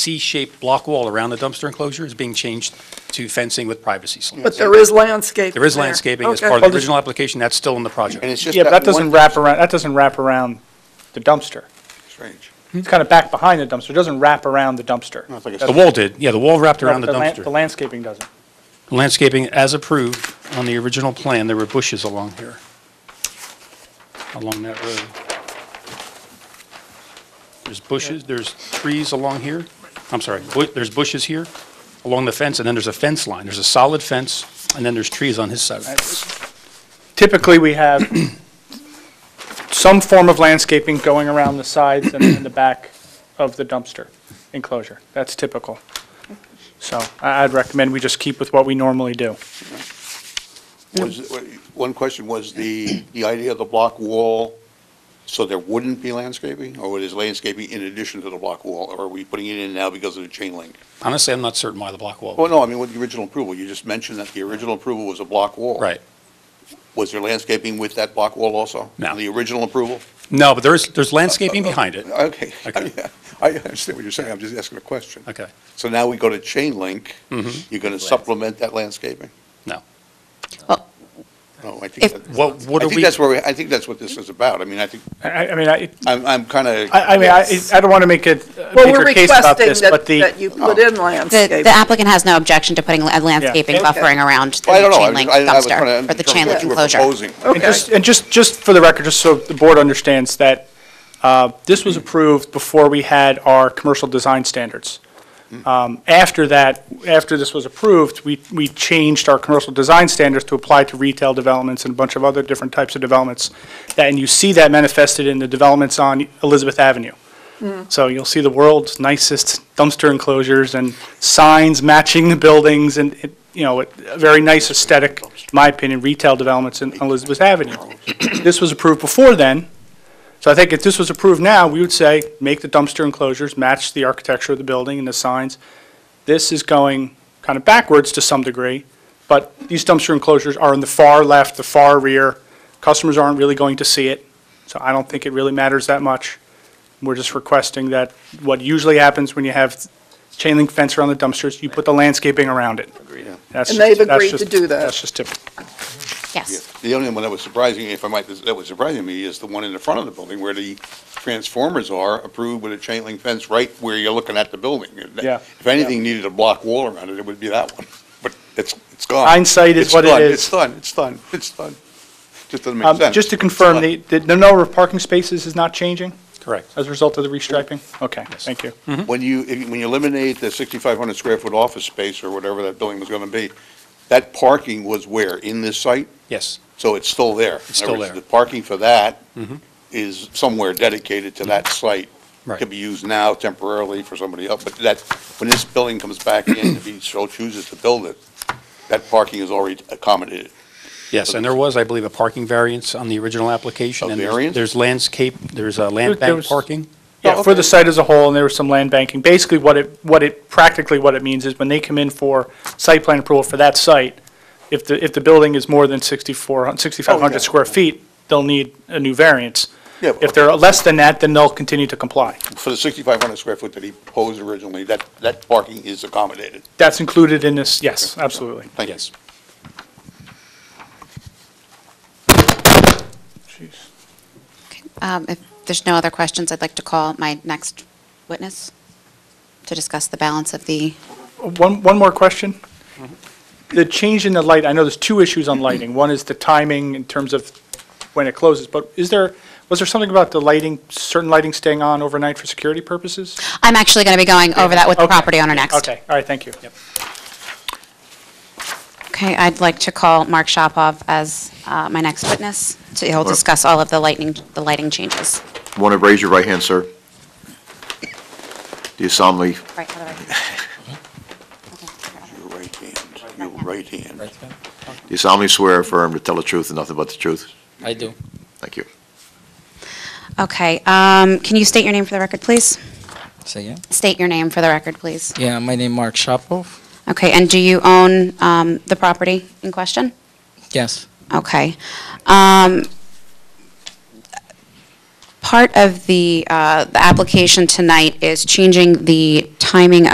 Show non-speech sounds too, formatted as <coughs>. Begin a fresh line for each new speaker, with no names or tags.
C-shaped block wall around the dumpster enclosure is being changed to fencing with privacy slats.
But there is landscaping.
There is landscaping as
Okay.
part of the
there's-
original application, that's still in the project.
And it's just
Yeah, but that doesn't
one
wrap around, that doesn't wrap around the dumpster.
strange.
It's kind of back behind the dumpster, it doesn't wrap around the dumpster.
It's like a-
The wall did, yeah, the wall wrapped around the
la-
dumpster.
The landscaping doesn't.
Landscaping as approved on the original plan, there were bushes along here, along that road. There's bushes, there's trees along here, I'm sorry, bu- there's bushes here along the fence, and then there's a fence line. There's a solid fence, and then there's trees on his side.
Typically, we have <coughs> some form of landscaping going around the sides and and the back of the dumpster enclosure. That's typical. So I- I'd recommend we just keep with what we normally do.
Was, uh, one question was the, the idea of the block wall, so there wouldn't be landscaping? Or is landscaping in addition to the block wall, or are we putting it in now because of the chain link?
Honestly, I'm not certain why the block wall.
Well, no, I mean, with the original approval, you just mentioned that the original approval was a block wall.
Right.
Was there landscaping with that block wall also?
No.
The original approval?
No, but there is, there's landscaping behind it.
Okay.
Okay.
<laughs> I understand what you're saying, I'm just asking a question.
Okay,
So now we go to chain link,
Mhm.
you're going to supplement that landscaping?
no.
No, I think,
If-
that-
What, what
I
are
think
we,
that's where, we- I think that's what this is about. I mean, I think,
I- I I mean, I
I'm, I'm kind of.
I I mean, I I don't want to make a
Well,
make
we're
a case about
requesting
this,
that,
but the...
that you put in
The
landscaping.
the applicant has no objection to putting a landscaping
Okay.
buffering around the
I don't know. I
chain
was-
link
I- I was trying
dumpster,
to
or the chain
interpret
link
what you were
enclosure.
proposing.
And just, and just, just for the record, just so the board understands that uh, this was approved before we had our commercial design standards. Um, After that, after this was approved, we, we changed our commercial design standards to apply to retail developments and a bunch of other different types of developments. That- And you see that manifested in the developments on Elizabeth Avenue. So you'll see the world's nicest dumpster enclosures and signs matching the buildings and, it- you know, it- a very nice aesthetic, in my opinion, retail developments in Elizabeth Avenue. This was approved before then, so I think if this was approved now, we would say, make the dumpster enclosures match the architecture of the building and the signs. This is going kind of backwards to some degree, but these dumpster enclosures are in the far left, the far rear. Customers aren't really going to see it, so I don't think it really matters that much. We're just requesting that what usually happens when you have chain link fence around the dumpsters, you put the landscaping around it. Agreed.
And they've agreed to do that.
That's just typical.
Yeah.
Yes.
The only one that was surprising, if I might, that was surprising me is the one in the front of the building where the transformers are approved with a chain link fence right where you're looking at the building.
Yeah.
If anything needed a block wall around it, it would be that one, but it's, it's gone.
Hindsight is
It's
what it
done,
is.
It's done, it's done, it's done. Just doesn't make
Um,
sense.
Just to confirm, the,
It's
the the number of parking spaces is not changing?
correct.
As a result of the restriping? Okay, thank you.
done. When you, if- when you eliminate the 6,500 square foot office space or whatever that building was going to be, that parking was where? In this site?
Yes,
So it's still there.
It's
In other
still
words,
there. Mm-hmm.
The parking for that is somewhere dedicated to that site.
Right.
Could be used now temporarily for somebody else, but that, when this building comes back in, if he so chooses to build it, that parking is already accommodated.
yes, and there was, I believe, a parking variance on the original application.
A
and there's-
variance?
There's landscape, there's a
There-
land
there
bank
was-
parking.
Oh,
Yeah, for the site as a whole, and there was some land banking. Basically, what it, what it, practically what it means is when they come in for site plan approval for that site, if the, if the building is more than 64, 6,500
Okay.
square feet, they'll need a new variance.
Oh, Yeah, but-
If they're less than that, then they'll continue to comply.
For the 6,500 square foot that he posed originally, that, that parking is accommodated.
That's included in this, yes, absolutely.
Thank you.
Yes.
Um, If there's no other questions, I'd like to call my next witness to discuss the balance of the,
One, one more question. The change in the light, I know there's two issues on lighting. One is the timing in terms of when it closes, but is there, was there something about the lighting, certain lighting staying on overnight for security purposes?
I'm actually going to be going over that with the
Okay.
property owner next.
Okay, all right, thank you.
Okay, I'd like to call Mark Shopov as uh, my next witness. So he'll discuss all of the lightning, the lighting changes.
Want to raise your right hand, sir? Do you solemnly,
Right,
<laughs>
other way.
Your right hand, your right hand.
Right, ma'am?
do you solemnly swear or affirm to tell the truth and nothing but the truth?
I do.
Thank you.
Okay, um, can you state your name for the record, please?
Say yeah.
State your name for the record, please.
Yeah, my name Mark Shapov.
Okay, and do you own um, the property in question?
Yes.
Okay. Um, Part of the, uh, the application tonight is changing the time. timing